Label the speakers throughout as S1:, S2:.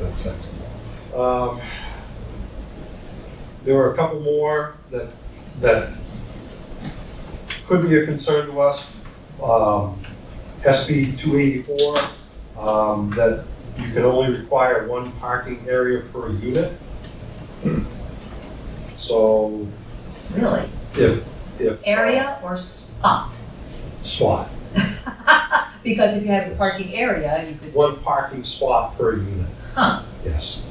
S1: that's sensible. Um, There were a couple more that, that could be a concern to us. Um, SB two eighty-four, um, that you can only require one parking area per unit. So
S2: Really?
S1: if, if. uh,
S2: Area or spot?
S1: Spot,
S2: Because if you have a parking area, you could,
S1: one parking spot per unit.
S2: huh,
S1: Yes.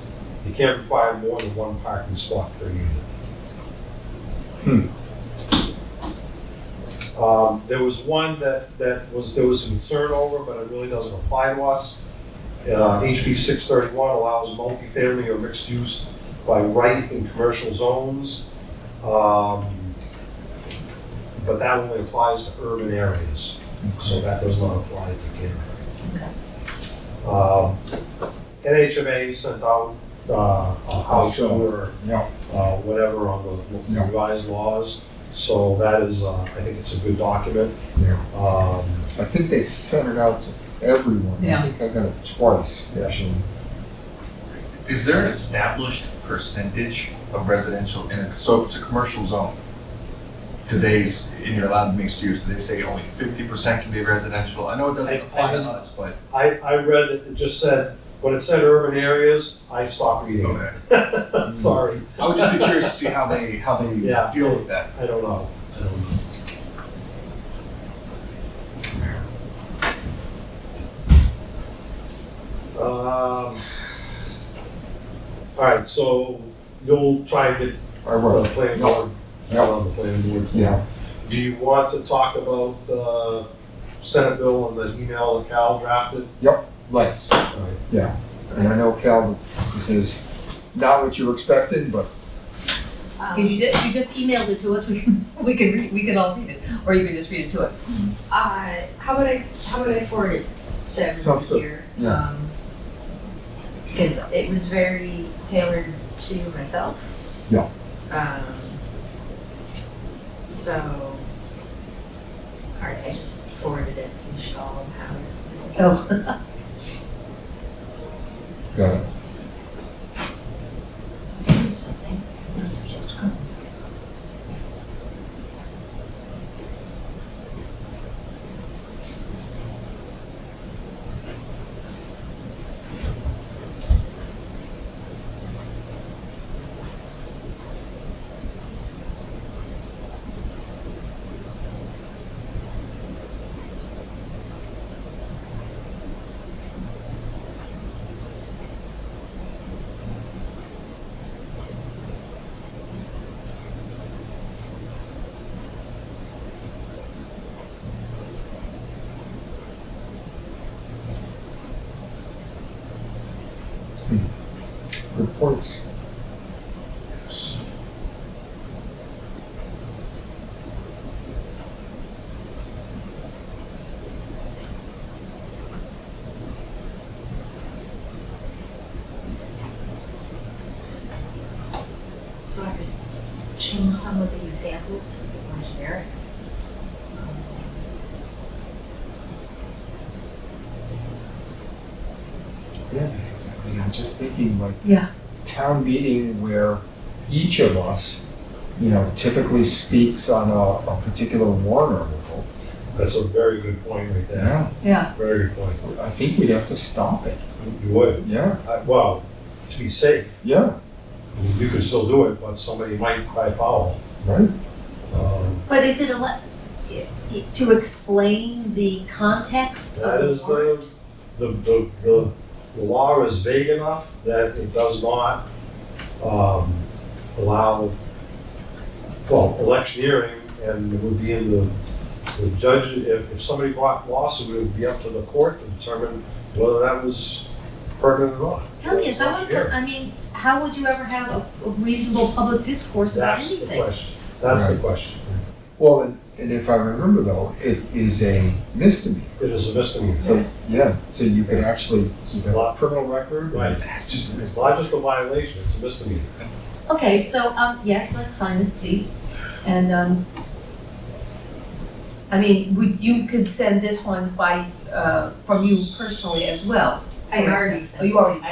S1: You can't require more than one parking spot per unit. Um, there was one that, that was, there was some concern over, but it really doesn't apply to us. Uh, HB six thirty-one allows multifamily or mixed use by right in commercial zones. Um, but that only applies to urban areas, so that does not apply to Canterbury. Um, NHMA sent out, uh, a house
S3: Sure.
S1: tour,
S3: Yeah.
S1: uh, whatever on the- the
S3: Yeah.
S1: revised laws. So that is, uh, I think it's a good document.
S3: Yeah.
S1: Um,
S3: I think they sent it out to everyone.
S2: Yeah.
S3: I think I got it twice, actually.
S4: Is there an established percentage of residential in a, so if it's a commercial zone? Do they, s- in your allowed mixed use, do they say only fifty percent can be residential? I know it doesn't
S1: I-
S4: apply to
S1: I-
S4: us, but.
S1: I, I read it, it just said, when it said urban areas, I stopped reading.
S4: Okay.
S3: Mm.
S1: Sorry,
S4: I would just be curious to see how they, how they
S1: Yeah.
S4: deal with that.
S1: I don't know. I don't know. Um, all right, so you'll try and get
S3: I
S1: the
S3: wrote it.
S1: planning board,
S3: Yeah.
S1: on the planning board.
S3: Yeah.
S1: Do you want to talk about the Senate bill and the email that Cal drafted?
S3: Lights.
S1: All right.
S3: And I know Cal, this is not what you expected, but
S5: Um,
S2: if you just, you just emailed it to us, we can, we can, read- we can all read it, or you can just read it to us.
S5: Uh, how about I, how about I forward it to everyone
S3: Sounds good.
S5: here?
S3: Yeah.
S5: Because it was very tailored to myself.
S3: Yeah.
S5: Um, so, alright, I just forwarded it, so you should all have it.
S2: Oh,
S3: got it.
S2: something, must have just come.
S3: Reports.
S5: So I could change some of the examples to be more generic.
S3: Yeah, because I mean, I'm just thinking like
S2: Yeah.
S3: town meeting where each of us, you know, typically speaks on a, a particular warrant article.
S1: That's a very good point right there.
S3: Yeah.
S2: Yeah,
S1: Very good point.
S3: I think we'd have to stop it.
S1: You would.
S3: Yeah.
S1: I- Well, to be safe,
S3: Yeah.
S1: you could still do it, but somebody might cry foul.
S3: Right.
S1: Um,
S2: but is it a, le- to explain the context of
S1: That is
S2: warrant?
S1: the, the, the, the the law is vague enough that it does not, um, allow, well, electioneering, and it would be in the, the judge, if, if somebody brought lawsuit, it would be up to the court to determine whether that was pertinent or not.
S2: Tell me, if someone said, I mean, how would you ever have a- a reasonable public discourse about
S1: That's the
S2: anything?
S1: question, that's the question.
S3: Well, and, and if I remember though, it is a misdemeanor.
S1: It is a misdemeanor.
S3: So,
S5: Yes.
S3: yeah, so you could actually, you have a
S1: Lot.
S3: criminal record.
S1: Right,
S4: That's just a
S1: it's not just a violation, it's a misdemeanor.
S2: Okay, so, um, yes, let's sign this, please, and, um, I mean, would, you could send this one by, uh, from you personally as well.
S5: I already said.
S2: Oh, you already said.